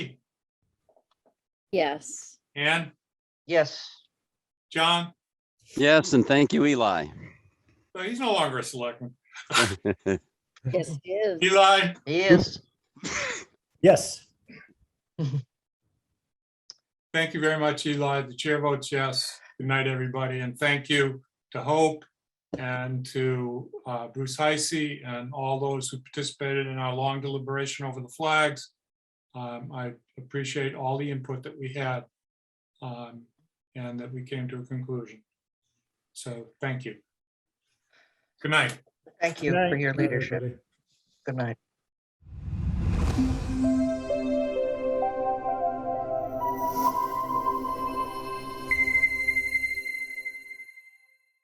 Yes. Ann, Yes, John, Yes, and thank you, Eli. No, he's no longer a selectman. Yes, it is. Eli, he is. Yes. thank you very much, Eli. The chair votes yes. Good night, everybody, and thank you to Hope and to uh, Bruce Heisey and all those who participated in our long deliberation over the flags. Um, I appreciate all the input that we had um, and that we came to a conclusion. So thank you. Good night. Thank you for your leadership. Good night.